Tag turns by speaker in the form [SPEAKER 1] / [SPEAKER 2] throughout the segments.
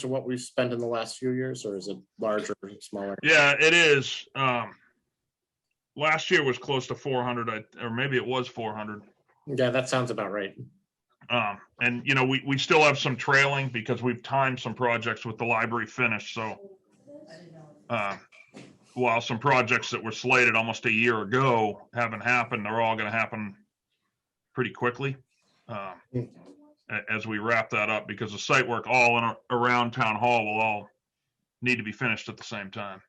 [SPEAKER 1] to what we've spent in the last few years, or is it larger, smaller?
[SPEAKER 2] Yeah, it is. Um, last year was close to four hundred, or maybe it was four hundred.
[SPEAKER 1] Yeah, that sounds about right.
[SPEAKER 2] Um, and you know, we, we still have some trailing because we've timed some projects with the library finish, so. Uh, while some projects that were slated almost a year ago haven't happened, they're all gonna happen pretty quickly. Um,
[SPEAKER 1] Hmm.
[SPEAKER 2] a- as we wrap that up, because the site work all in, a- around town hall will all need to be finished at the same time.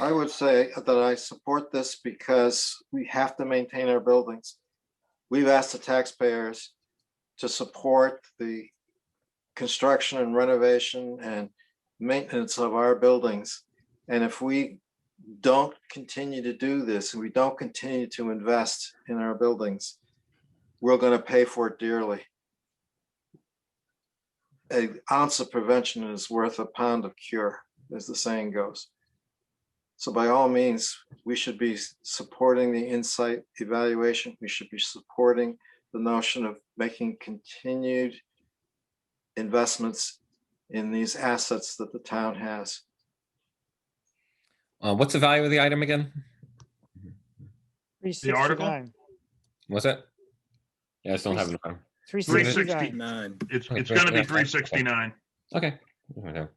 [SPEAKER 3] I would say that I support this because we have to maintain our buildings. We've asked the taxpayers to support the construction and renovation and maintenance of our buildings. And if we don't continue to do this, and we don't continue to invest in our buildings, we're gonna pay for it dearly. An ounce of prevention is worth a pound of cure, as the saying goes. So by all means, we should be s- supporting the insight evaluation. We should be supporting the notion of making continued investments in these assets that the town has.
[SPEAKER 4] Uh, what's the value of the item again?
[SPEAKER 2] The article?
[SPEAKER 4] What's it? Yeah, I still don't have it. in front.
[SPEAKER 5] Three
[SPEAKER 2] 360.
[SPEAKER 5] sixty-nine.
[SPEAKER 2] It's,
[SPEAKER 4] Okay,
[SPEAKER 2] it's gonna be
[SPEAKER 4] yeah,
[SPEAKER 2] three sixty-nine.
[SPEAKER 4] Okay. Okay. All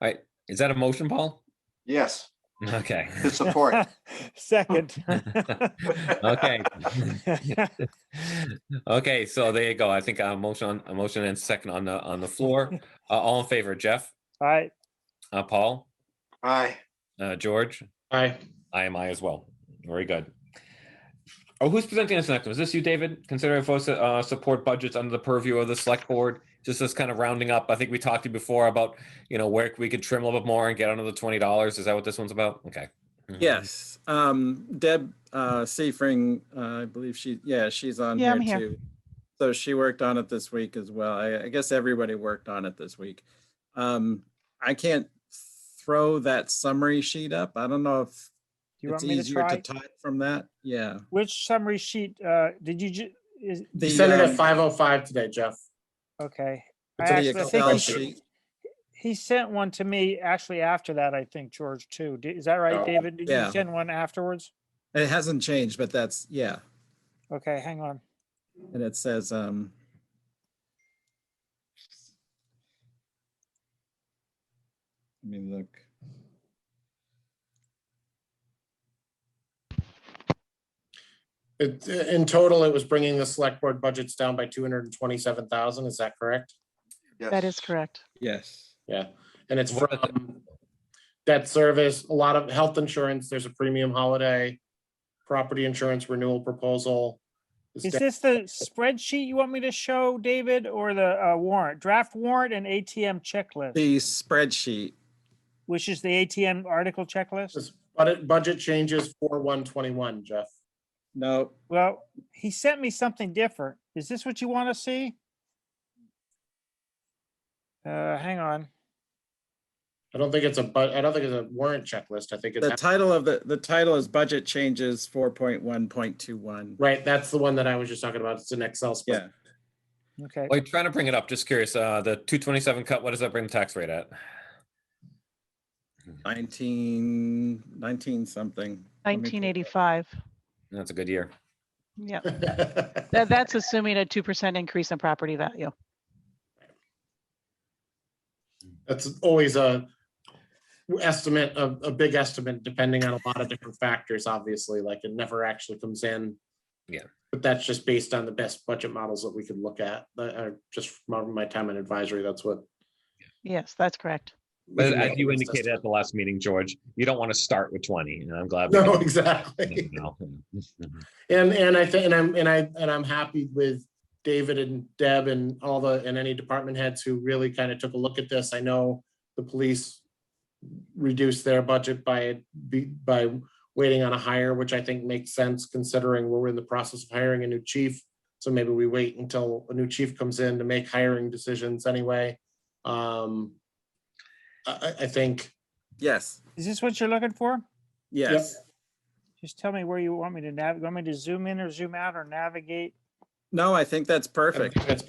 [SPEAKER 4] right. Is that a motion, Paul?
[SPEAKER 3] Yes,
[SPEAKER 4] Okay.
[SPEAKER 3] to support.
[SPEAKER 5] Second.
[SPEAKER 4] okay. okay. So there you go. I think a motion, on a motion and second on the on the floor. Uh, all in favor, Jeff,
[SPEAKER 5] All right,
[SPEAKER 4] uh, Paul,
[SPEAKER 3] Aye.
[SPEAKER 4] uh, George.
[SPEAKER 1] Aye.
[SPEAKER 4] I am I as well. Very good. Oh, who's presenting this next one? Is this you, David? Considering for uh, support budgets under the purview of the select board, just as kind of rounding up. I think we talked to you before about, you know, where we could trim a little bit more and get under the twenty dollars. Is that what this one's about? Okay. Mhm.
[SPEAKER 6] Yes, um, Deb, uh, Seifring, uh, I believe she, yeah, she's on
[SPEAKER 7] Yeah,
[SPEAKER 6] here
[SPEAKER 7] I'm here.
[SPEAKER 6] too. So she worked on it this week as well. I, I guess everybody worked on it this week. Um, I can't throw that summary sheet up. I don't know if
[SPEAKER 5] do you
[SPEAKER 6] it's
[SPEAKER 5] want me to
[SPEAKER 6] easier to
[SPEAKER 5] try?
[SPEAKER 6] type from that. Yeah.
[SPEAKER 5] Which summary sheet, uh, did you ju- is,
[SPEAKER 1] You
[SPEAKER 6] The,
[SPEAKER 1] sent it
[SPEAKER 6] um,
[SPEAKER 1] at five oh five today, Jeff.
[SPEAKER 5] okay. I
[SPEAKER 1] It's in
[SPEAKER 5] actually-
[SPEAKER 6] The
[SPEAKER 5] I think
[SPEAKER 6] Excel
[SPEAKER 5] he-
[SPEAKER 6] sheet,
[SPEAKER 5] He sent one to me actually after that, I think, George, too. Di- Is that
[SPEAKER 1] Oh.
[SPEAKER 5] right, David? Did you
[SPEAKER 6] Yeah.
[SPEAKER 5] send one afterwards?
[SPEAKER 6] it hasn't changed, but that's, yeah,
[SPEAKER 5] Okay, hang on.
[SPEAKER 6] and it says, um, let me look.
[SPEAKER 1] It, in total, it was bringing the select board budgets down by two hundred and twenty-seven thousand, is that correct?
[SPEAKER 7] That
[SPEAKER 3] Yes.
[SPEAKER 7] is correct.
[SPEAKER 6] Yes.
[SPEAKER 1] Yeah, and it's
[SPEAKER 4] What are the-
[SPEAKER 1] from debt service, a lot of health insurance, there's a premium holiday, property insurance renewal proposal. It's
[SPEAKER 5] Is
[SPEAKER 1] down-
[SPEAKER 5] this the spreadsheet you want me to show, David, or the uh, warrant, draft warrant and ATM checklist,
[SPEAKER 6] The spreadsheet.
[SPEAKER 5] which is the ATM article checklist?
[SPEAKER 1] This Budget, budget changes for one twenty-one, Jeff.
[SPEAKER 6] No,
[SPEAKER 5] Well, he sent me something different. Is this what you want to see? Uh, hang on.
[SPEAKER 1] I don't think it's a, but, I don't think it's a warrant checklist, I think
[SPEAKER 6] the
[SPEAKER 1] it's,
[SPEAKER 6] title of the, the title is budget changes four point one point two one.
[SPEAKER 1] right, that's the one that I was just talking about, it's an Excel spreadsheet.
[SPEAKER 6] Yeah,
[SPEAKER 5] Okay.
[SPEAKER 4] Well, you're trying to bring it up. Just curious. Uh, the two twenty-seven cut. What does that bring the tax rate at?
[SPEAKER 6] nineteen, nineteen something. Let me pull it up.
[SPEAKER 7] 1985.
[SPEAKER 4] That's a good year.
[SPEAKER 7] Yeah, That- that's assuming a 2% increase in property value.
[SPEAKER 1] That's always a estimate, a, a big estimate, depending on a lot of different factors, obviously, like it never actually comes in.
[SPEAKER 4] Yeah.
[SPEAKER 1] But that's just based on the best budget models that we could look at, that are just from my time in advisory, that's what.
[SPEAKER 7] Yes, that's correct.
[SPEAKER 4] But as you indicated at the last meeting, George, you don't want to start with twenty, and I'm glad. we
[SPEAKER 1] No,
[SPEAKER 4] didn't.
[SPEAKER 1] exactly.
[SPEAKER 4] No, no.
[SPEAKER 1] And, and I think, and I'm, and I, and I'm happy with David and Deb and all the, and any department heads who really kind of took a look at this. I know the police reduced their budget by, be- by waiting on a hire, which I think makes sense considering we're in the process of hiring a new chief. So maybe we wait until a new chief comes in to make hiring decisions anyway. Um, I, I, I think,
[SPEAKER 6] Yes,
[SPEAKER 5] Is this what you're looking for?
[SPEAKER 6] yes.
[SPEAKER 5] Just tell me where you want me to navigate. Want me to zoom in or zoom out or navigate?
[SPEAKER 6] No, I think that's
[SPEAKER 1] I think
[SPEAKER 6] perfect.
[SPEAKER 1] that's